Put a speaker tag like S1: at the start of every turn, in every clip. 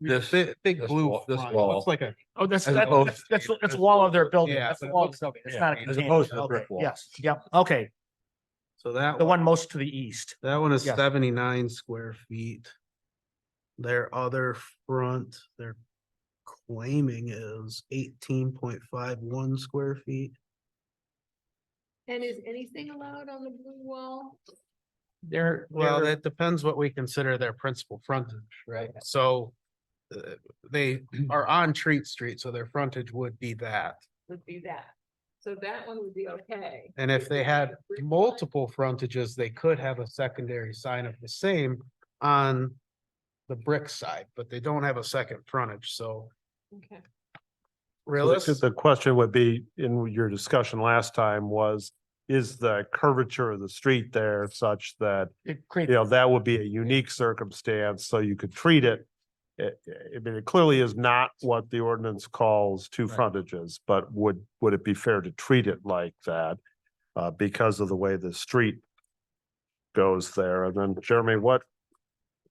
S1: This-
S2: Big, big
S1: this
S2: blue
S1: wall- this
S2: front,
S1: wall.
S2: looks like a,
S3: Oh, that's,
S1: As
S3: that-
S1: opposed
S3: that's,
S1: to
S3: that's,
S1: the-
S3: that's a wall of their building.
S2: Yeah,
S3: That's
S2: but
S3: the
S2: it
S3: wall. of
S2: looks-
S3: the building. It's
S1: yeah,
S3: not a
S1: as opposed to
S3: container.
S1: the brick
S3: Okay,
S1: wall.
S3: Yes, yep, okay.
S2: so that,
S3: The
S2: one
S3: one most to the east.
S2: that one is
S3: yes.
S2: seventy-nine square feet. Their other front, they're claiming is eighteen point five one square feet.
S4: And is anything allowed on the blue wall?
S3: There,
S2: Well,
S3: there-
S2: that depends what we consider their principal frontage, right? So uh, they are on Treat Street, so their frontage would be that.
S4: Would be that. So that one would be okay.
S2: And if they had
S4: Brick wall.
S2: multiple frontages, they could have a secondary sign of the same on the brick side, but they don't have a second frontage, so
S4: Okay.
S5: So the- 'cause
S2: realistic.
S5: The question would be, in your discussion last time was, is the curvature of the street there such that,
S3: it
S5: you
S3: creates,
S5: know, that would be a unique circumstance, so you could treat it. It, I mean, it clearly is not what the ordinance calls two
S1: Right.
S5: frontages, but would, would it be fair to treat it like that? Uh, because of the way the street goes there. And then Jeremy, what,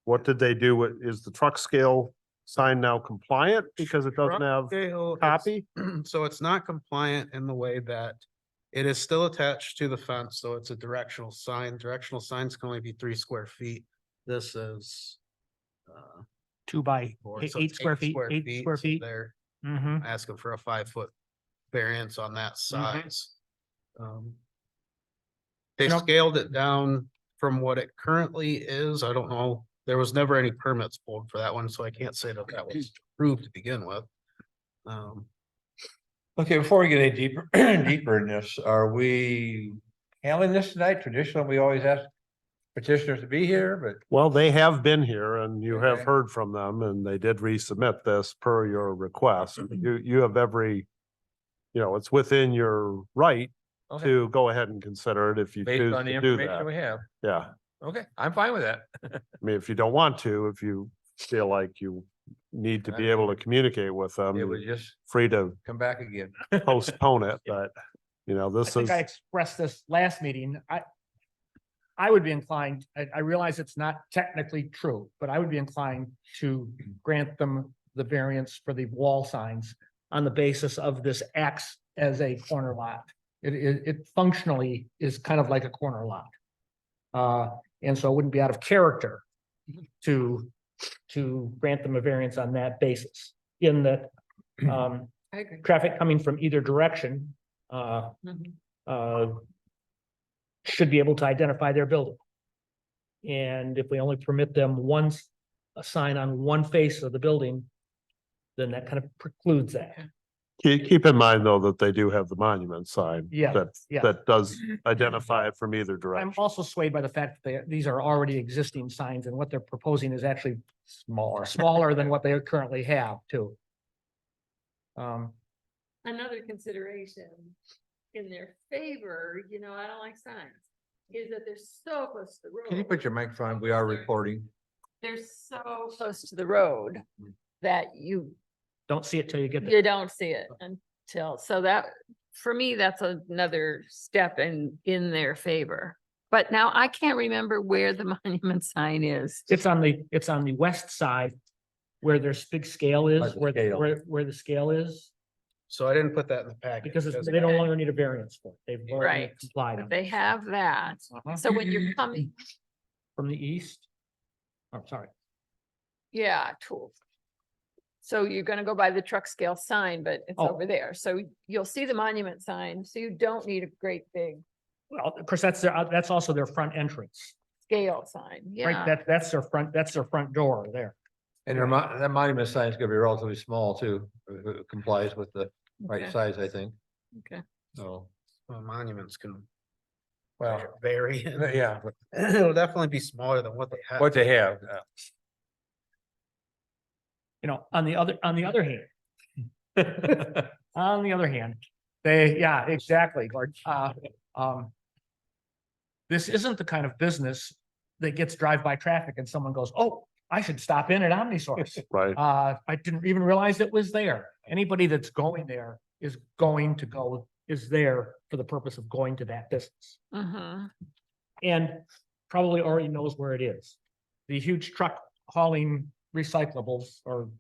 S5: what did they do? What- Is the truck scale sign now compliant because it doesn't have
S2: Copy,
S5: copy?
S2: so it's not compliant in the way that it is still attached to the fence, so it's a directional sign. Directional signs can only be three square feet. This is uh,
S3: two by
S2: four,
S3: eight-
S2: so it's
S3: eight square feet, eight square
S2: so
S3: feet.
S2: They're
S3: Mm-hmm.
S2: asking for a five foot variance on that size. Um, They
S3: You know-
S2: scaled it down from what it currently is. I don't know. There was never any permits pulled for that one, so I can't say that that was
S3: Mm-hmm.
S2: approved to begin with. Um,
S1: Okay, before we get any deeper, deeper in this, are we handling this tonight? Traditionally, we always ask petitioners to be here, but
S5: Well, they have been here and you have
S1: Okay.
S5: heard from them and they did resubmit this per your request.
S1: Mm-hmm.
S5: You, you have every, you know, it's within your right
S1: Okay.
S5: to go ahead and consider it if you choose
S1: based on the
S5: to do
S1: information
S5: that.
S1: we have,
S5: Yeah. I
S1: okay, I'm fine with that.
S5: mean, if you don't want to, if you feel like you need to be able to communicate with them,
S1: It
S5: you're
S1: would just
S5: free to
S1: come back again.
S5: postpone it, but you know,
S3: I
S5: this is,
S3: think I expressed this last meeting. I, I would be inclined, I, I realize it's not technically true, but I would be inclined to grant them the variance for the wall signs on the basis of this acts as a corner lot. It, it, it functionally is kind of like a corner lot. Uh, and so it wouldn't be out of character to, to grant them a variance on that basis in that, um,
S4: I agree.
S3: traffic coming from either direction, uh,
S4: Mhm.
S3: uh, should be able to identify their building. And if we only permit them once, a sign on one face of the building, then that kind of precludes that.
S5: keep, keep in mind though, that they do have the monument sign.
S3: Yeah,
S5: That,
S3: yeah.
S5: that does identify it from either direction.
S3: I'm also swayed by the fact that they, these are already existing signs and what they're proposing is actually
S1: Smaller.
S3: smaller than what they currently have too. Um,
S4: Another consideration in their favor, you know, I don't like signs, is that they're so close to the road.
S1: Can you put your microphone? We are recording.
S4: They're so close to the road that you,
S3: don't see it till you get there.
S4: you don't see it until, so that, for me, that's another step in, in their favor. But now I can't remember where the monument sign is.
S3: It's on the, it's on the west side where there's big scale
S1: Like
S3: is,
S1: the
S3: where,
S1: scale.
S3: where, where the scale is.
S2: so I didn't put that in the packet.
S3: Because it's,
S2: because-
S3: they no longer need a variance for it. They've already
S4: Right.
S3: complied
S4: But
S3: on it.
S4: They have that.
S3: Uh-huh.
S4: So when you're coming,
S3: From the east? Oh, I'm sorry.
S4: yeah, tool. So you're gonna go by the truck scale sign, but it's
S3: Oh.
S4: over there. So you'll see the monument sign, so you don't need a great big
S3: Well, of course, that's their, uh, that's also their front entrance,
S4: scale sign,
S3: right?
S4: yeah.
S3: That, that's their front, that's their front door there.
S1: And their mon- that monument sign is gonna be relatively small too, It- it complies with the right
S4: Okay,
S1: size, I think,
S4: Okay,
S1: so.
S2: Well, Monuments can
S1: Well,
S2: vary.
S1: yeah, but
S2: It'll definitely be smaller than what they have.
S1: what they have, uh,
S3: You know, on the other, on the other hand. On the other hand, they, yeah, exactly, Gord. Uh, um. This isn't the kind of business that gets drive-by traffic and someone goes, oh, I should stop in at Omnisource.
S5: Right.
S3: Uh, I didn't even realize it was there. Anybody that's going there is going to go, is there for the purpose of going to that business.
S4: uh-huh,
S3: And probably already knows where it is. The huge truck hauling recyclables or